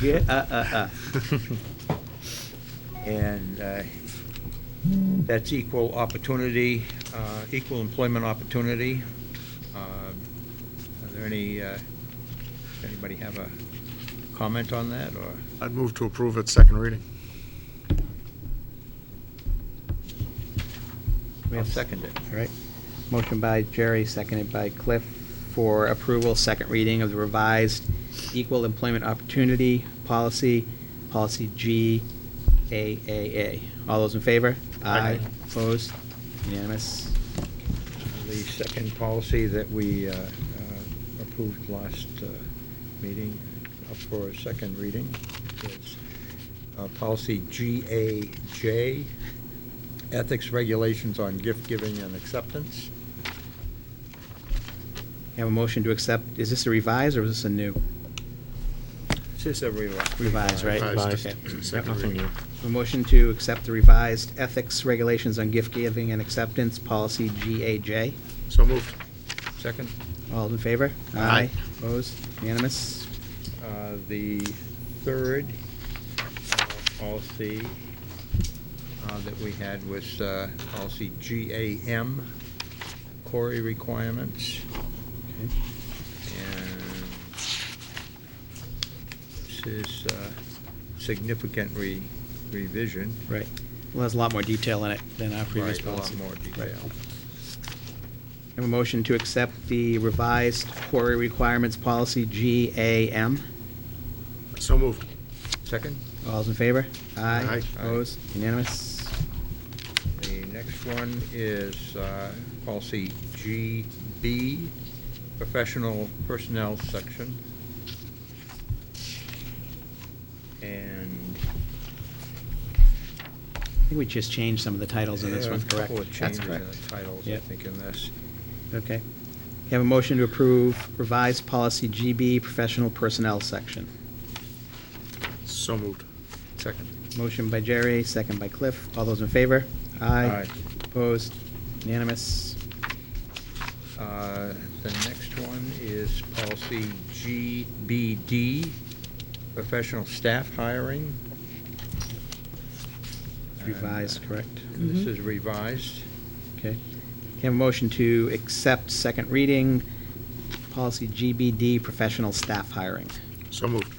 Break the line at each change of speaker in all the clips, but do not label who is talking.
Get, uh, uh, uh. And uh, that's equal opportunity, uh, equal employment opportunity. Um, Are there any, uh, does anybody have a comment on that, or?
I'd move to approve at second reading.
I'll second it.
All right. Motion by Jerry, seconded by Cliff for approval, second reading of the revised Equal Employment Opportunity Policy, Policy GAAA. All those in favor?
Aye.
Opposed? Unanimous?
The second policy that we uh, uh, approved last uh, meeting up for a second reading is uh, policy GAJ, ethics regulations on gift giving and acceptance.
Have a motion to accept, is this a revised or is this a new?
This is a revi-
Revised, right?
Revised.
Okay.
Second
Nothing
reading.
new.
A motion to accept the revised Ethics Regulations on Gift Giving and Acceptance, Policy GAJ.
So moved.
Second,
All in favor?
Aye.
Opposed? Unanimous?
uh, the third uh, policy uh, that we had was uh, policy GAM, Corey requirements.
Okay.
And this is uh, significant re- revision.
Right. Well, there's a lot more detail in it than our previous
Right, a lot
policy.
more detail.
Right. Have a motion to accept the revised quarry requirements policy, GAM.
So moved.
Second,
All's in favor?
Aye.
Opposed? Unanimous?
the next one is uh, policy GB, professional personnel section. And
I think we just changed some of the titles in this
there are
one,
a
correct?
couple of
That's
changes in the
correct.
titles, I
Yep.
think, in this.
Okay. Have a motion to approve revised policy, GB, professional personnel section.
So moved.
Second.
Motion by Jerry, second by Cliff. All those in favor?
Aye.
Opposed? Unanimous?
Uh, The next one is policy GBD, professional staff hiring.
Revised,
And, uh,
correct?
This is revised.
Okay. Can I have a motion to accept second reading, policy GBD, professional staff hiring?
So moved.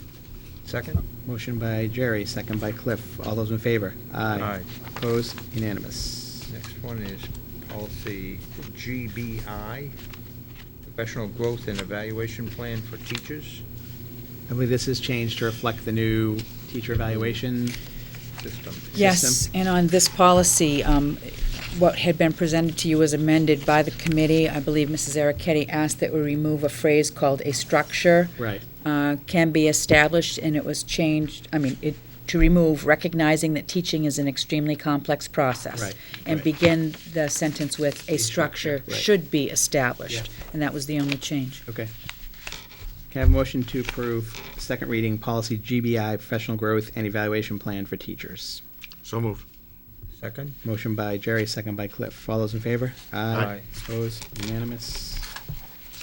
Second?
Motion by Jerry, second by Cliff. All those in favor?
Aye.
Opposed? Unanimous.
Next one is policy GBI, professional growth and evaluation plan for teachers.
I believe this is changed to reflect the new teacher evaluation.
System.
system?
Yes, and on this policy, um, what had been presented to you was amended by the committee. I believe Mrs. Ericetti asked that we remove a phrase called "a structure
Right.
uh, can be established," and it was changed, I mean, it, to remove recognizing that teaching is an extremely complex process.
Right,
And
right.
begin the sentence with "a
A structure,
structure
right.
should be established." And that was the only change.
Okay. Can I have a motion to approve second reading, policy GBI, professional growth and evaluation plan for teachers?
So moved.
Second?
Motion by Jerry, second by Cliff. All those in favor?
Aye.
Opposed? Unanimous?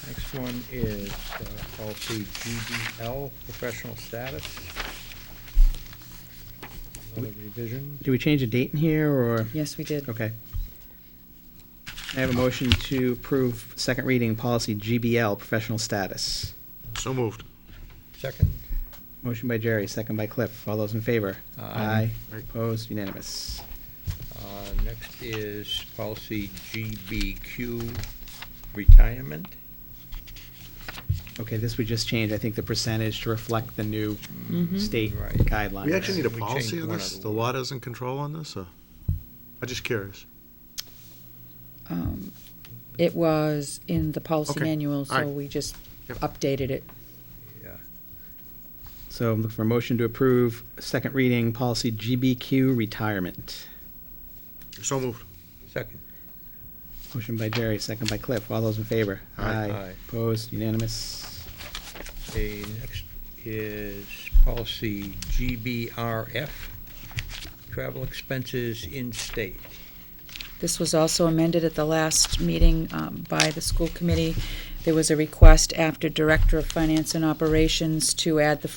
Next one is uh, policy GBL, professional status. Another revision.
Do we change a date in here, or?
Yes, we did.
Okay. I have a motion to approve second reading policy GBL, professional status.
So moved.
Second?
Motion by Jerry, second by Cliff. All those in favor?
Aye.
Aye.
Opposed? Unanimous.
Uh, Next is policy GBQ, retirement.
Okay, this we just changed, I think, the percentage to reflect the new state
Right.
guidelines.
We actually need a
We
policy
changed
on
one
this?
other
The
one.
law doesn't control on this, or? I'm just curious.
Um, It was in the policy
Okay,
manual,
all
so
right.
we just
Yep.
updated it.
Yeah.
So I'm looking for a motion to approve second reading policy GBQ, retirement.
So moved.
Second.
Motion by Jerry, second by Cliff. All those in favor?
Aye.
Aye.
Opposed? Unanimous?
The next is policy GBRF, travel expenses in state.
This was also amended at the last meeting um, by the school committee. There was a request after Director of Finance and Operations to add the